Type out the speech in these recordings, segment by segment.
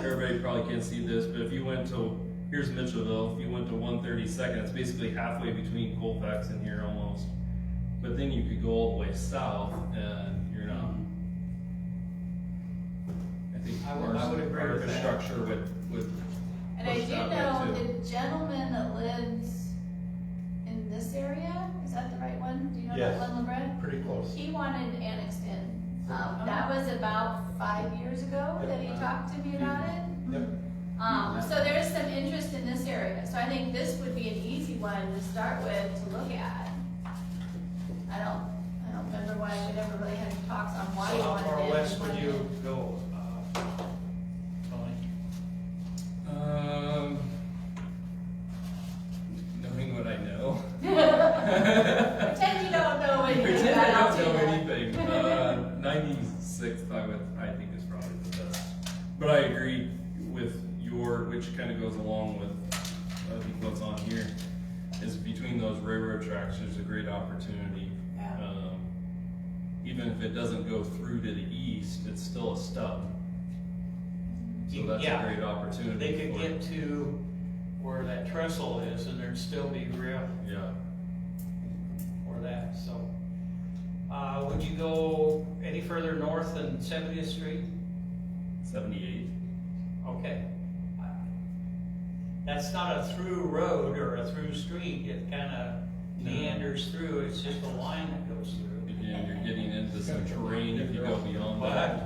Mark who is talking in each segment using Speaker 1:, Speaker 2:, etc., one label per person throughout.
Speaker 1: you probably can't see this, but if you went to, here's Mitchellville, if you went to one thirty-second, it's basically halfway between Colfax and here almost. But then you could go all the way south and you're not. I think
Speaker 2: I
Speaker 1: our,
Speaker 2: would- I would agree
Speaker 1: our
Speaker 2: with that.
Speaker 1: infrastructure would, would,
Speaker 3: And I
Speaker 1: Pushed
Speaker 3: do
Speaker 1: out there,
Speaker 3: know
Speaker 1: too.
Speaker 3: the gentleman that lives in this area, is that the right one? Do you know
Speaker 2: Yes.
Speaker 3: that Len LeBret?
Speaker 2: pretty close.
Speaker 3: He wanted Annexton. Um,
Speaker 2: Yep.
Speaker 3: that was about five years ago that
Speaker 2: Uh-huh.
Speaker 3: he
Speaker 2: Yep. Mm-hmm.
Speaker 3: talked to me about it.
Speaker 2: Yep.
Speaker 3: Um, so there is some interest in this area, so I think this would be an easy one to start with, to look at. I don't, I don't remember why we never really had talks on
Speaker 2: So
Speaker 3: why you
Speaker 2: how
Speaker 3: wanted it.
Speaker 2: far west would you go, uh, Tony?
Speaker 1: um. Knowing what I know.
Speaker 3: Pretend you don't know anything
Speaker 1: Pretend I
Speaker 3: about
Speaker 1: don't know
Speaker 3: it.
Speaker 1: anything. Uh, ninety-sixth, I would, I think is probably the best. But I agree with your, which kind of goes along with, I think what's on here, is between those railroad tracks, there's a great opportunity.
Speaker 3: Yeah.
Speaker 1: Um, Even if it doesn't go through to the east, it's still a stub. So that's a
Speaker 2: Yeah,
Speaker 1: great opportunity.
Speaker 2: they could
Speaker 1: for it.
Speaker 2: get to where that trestle is and there'd still be rail
Speaker 1: Yeah.
Speaker 2: for that, so. Uh, would you go any further north than Seventieth Street?
Speaker 1: Seventy-eight.
Speaker 2: Okay. Uh, That's not a through road or a through street, it kinda
Speaker 1: No.
Speaker 2: meanders through, it's just a line that goes through.
Speaker 1: Again, you're getting into some terrain if you go beyond that.
Speaker 2: But,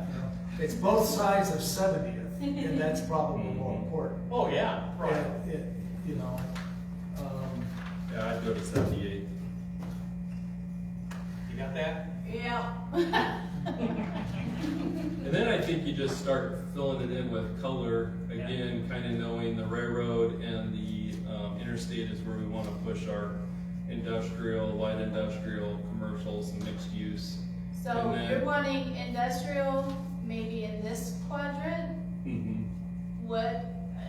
Speaker 4: It's both sides of 70th, and that's probably more important.
Speaker 2: oh yeah, right.
Speaker 4: And it- You know, um,
Speaker 1: Yeah, I'd go to seventy-eight.
Speaker 2: You got that?
Speaker 3: Yeah.
Speaker 1: And then I think you just start filling it in with color,
Speaker 2: Yeah.
Speaker 1: again, kind of knowing the railroad and the um, interstate is where we want to push our industrial, light industrial, commercials, and mixed use.
Speaker 3: So
Speaker 1: And
Speaker 3: you're
Speaker 1: then-
Speaker 3: wanting industrial, maybe in this quadrant,
Speaker 1: Because
Speaker 3: what,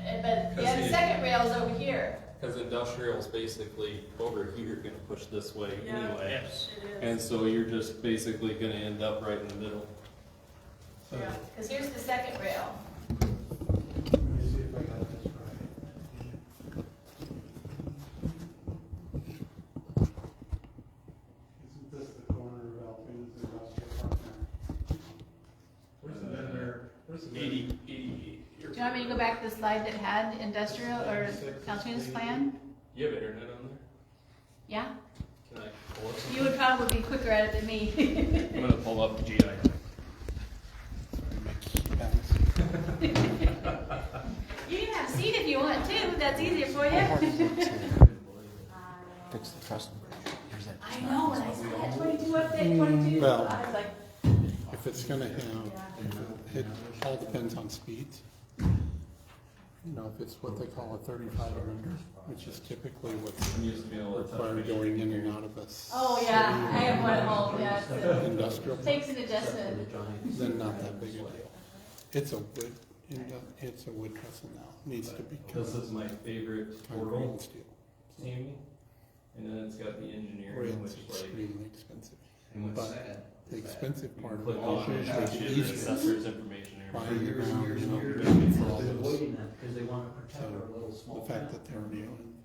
Speaker 3: eh, but
Speaker 1: Cause
Speaker 3: the
Speaker 1: the-
Speaker 3: second rail's over here.
Speaker 1: industrial's basically over here, gonna push this way
Speaker 3: Yeah.
Speaker 1: anyway.
Speaker 2: Yes.
Speaker 1: And so you're just basically gonna end up right in the middle.
Speaker 4: so let
Speaker 3: Cause here's the second rail.
Speaker 4: me see if I got this right.
Speaker 5: Isn't this the corner of Alpina's Industrial Park?
Speaker 1: Where's the vendor? Eighty, eighty.
Speaker 3: Do you want me to go back to the slide that had industrial or Altoon's plan?
Speaker 1: You have internet on
Speaker 3: Yeah,
Speaker 1: there? Can I pull up?
Speaker 3: you would probably be quicker at it than me.
Speaker 1: I'm gonna pull up GI.
Speaker 3: You can have a seat if you want to, that's easier for you.
Speaker 6: Fix the customer. Here's that.
Speaker 3: I know, when I saw that twenty-two up there, twenty-two,
Speaker 6: Well.
Speaker 3: I was like,
Speaker 6: If it's gonna have, it all depends on speeds. You know, if it's what they call a thirty-five or under, which is typically what's
Speaker 1: I'm used to being able to touch
Speaker 6: required
Speaker 1: video.
Speaker 6: going in and out of us.
Speaker 3: oh yeah, I have one at home, yeah, it's- it
Speaker 6: Industrial,
Speaker 3: takes an adjustment.
Speaker 6: then not that big a deal. It's a wood, indu- it's a wood trestle now, needs to be
Speaker 1: This
Speaker 6: cut.
Speaker 1: is my favorite
Speaker 6: Concrete
Speaker 1: portal,
Speaker 6: and steel.
Speaker 1: Tammy. And then it's got the engineering, which
Speaker 6: Rails
Speaker 1: is like.
Speaker 6: extremely expensive.
Speaker 1: And
Speaker 6: But the expensive part of
Speaker 1: Click
Speaker 6: it
Speaker 1: on
Speaker 6: is
Speaker 1: it, and
Speaker 6: usually the
Speaker 1: it's just
Speaker 6: easiest.
Speaker 1: assessor's information. here.
Speaker 6: Buying the
Speaker 7: years and
Speaker 6: ground,
Speaker 7: years
Speaker 6: you
Speaker 7: and
Speaker 6: know,
Speaker 7: years.
Speaker 6: bidding for all
Speaker 7: They've been
Speaker 6: those.
Speaker 7: waiting that because they want to protect our little
Speaker 6: The
Speaker 7: small town.
Speaker 6: fact that they're new and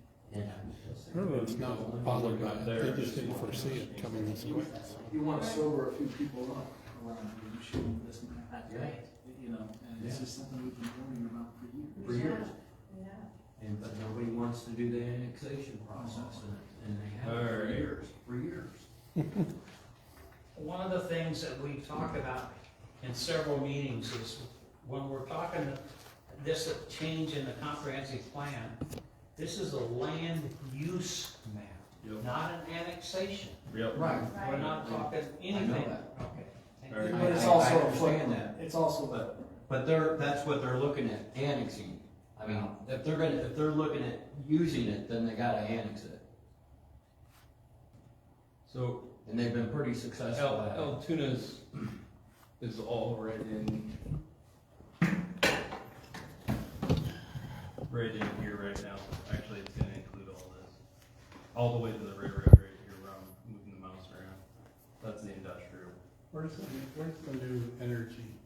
Speaker 7: Yeah.
Speaker 6: It's not bothered by it, they just didn't foresee it coming this quick.
Speaker 8: You wanna sober a few people up around you, you show them this map. You know, and this is something we've been warning about for years.
Speaker 7: For years.
Speaker 3: Yeah.
Speaker 7: And, but nobody wants to do the annexation process and, and they have
Speaker 1: All
Speaker 7: for
Speaker 1: right.
Speaker 7: years, for years.
Speaker 2: One of the things that we talk about in several meetings is when we're talking this change in the comprehensive plan, this is a land use map,
Speaker 1: Yep,
Speaker 2: not an annexation.
Speaker 1: yep.
Speaker 8: Right.
Speaker 2: We're not talking anything.
Speaker 7: that.
Speaker 2: Okay. Thank
Speaker 1: All
Speaker 2: you.
Speaker 1: right.
Speaker 8: But it's
Speaker 7: I- I
Speaker 8: also a
Speaker 7: understand
Speaker 8: footnote,
Speaker 7: that.
Speaker 8: it's also a
Speaker 7: But they're, that's what they're looking at, annexing. I mean, if they're gonna, if they're looking at using it, then they gotta annex it.
Speaker 1: So
Speaker 7: And they've been pretty
Speaker 1: El,
Speaker 7: successful at it.
Speaker 1: El Tunas is all right in. Right in here right now. Actually, it's gonna include all this. All the way to the railroad right here where I'm moving the mouse around. That's the industrial.
Speaker 6: Where's the, where's the new energy